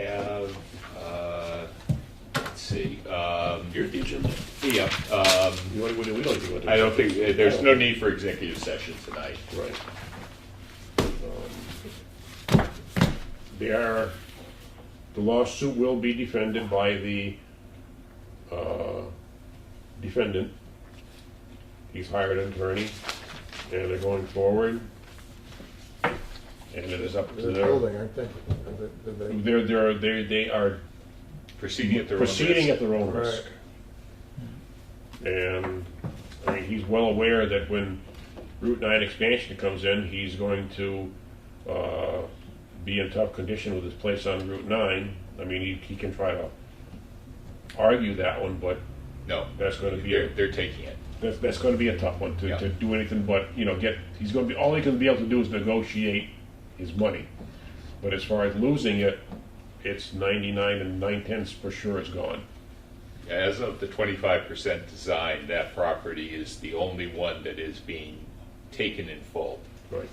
have, uh, let's see, um, you're the agenda. Yeah, um, What do we do? We don't do what. I don't think, uh, there's no need for executive session tonight. Right. Um, They are, the lawsuit will be defended by the uh, defendant. He's hired an attorney, and they're going forward. And it is up to They're them. building, aren't they? Are they- did they- They're, they're, they they are Proceeding at their own risk. proceeding at their own Right. risk. And, I mean, he's well aware that when Route 9 expansion comes in, he's going to uh, be in tough condition with his place on Route 9. I mean, he he can try to argue that one, but No, that's going to be, they're, a- they're taking it. that's that's going to be a tough one to Yeah. to do anything but, you know, get, he's going to be, all he can be able to do is negotiate his money. But as far as losing it, it's 99 and 9 tenths for sure is gone. As of the twenty-five percent design, that property is the only one that is being taken in full. Right.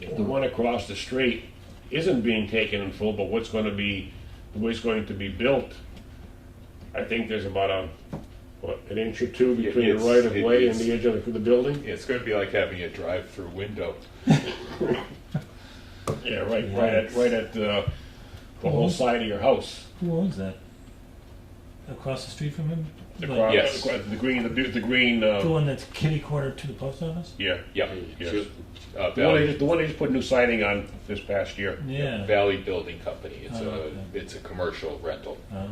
The one across the street isn't being taken in full, but what's gonna be, the way it's going to be built, I think there's about a, what, an inch or two between the it's- right of way it and is. the edge of the- the building? It's gonna be like having a drive-through window. Yeah, right, right at, right at the, the whole side of your house. Who owns that? Across the street from him? Across- Yes. across The green, the, bu- the green, The uh, one that's kitty corner to the post office? yeah. Yep. Yes. Uh, The one they Valley, just, the one they just put new siding on this past year, Yeah. Valley Building Company. It's Oh, a, okay. it's a commercial rental. Uh,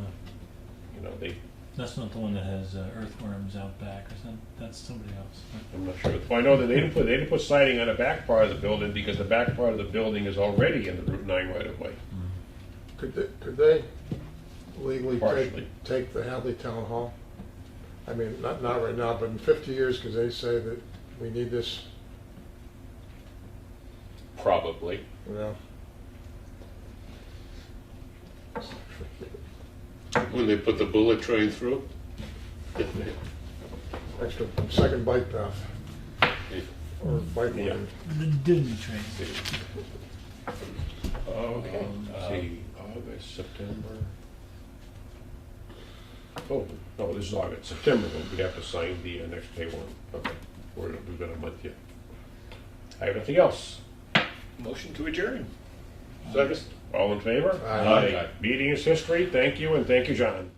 you know, they, that's not the one that has uh, earthworms out back or something. That's somebody else. I'm not sure. Well, I know that they didn't put, they didn't put siding on the back part of the building because the back part of the building is already in the Route 9 right of way. Could they, could they legally Partially. take, take the Hadley Town Hall? I mean, not, not right now, but in fifty years, because they say that we need this, Probably. you know? When they put the bullet train through? Extra second bike path or bike Yeah. lane. The Disney train. Oh, Okay. see, Uh, August, September. Oh, no, this is August, September, but we have to sign the uh, next pay warrant. Okay, we're, we've got a month yet. I have nothing else. Motion to adjourn. All in favor? Aye. Meeting is history. Thank you, and thank you, John.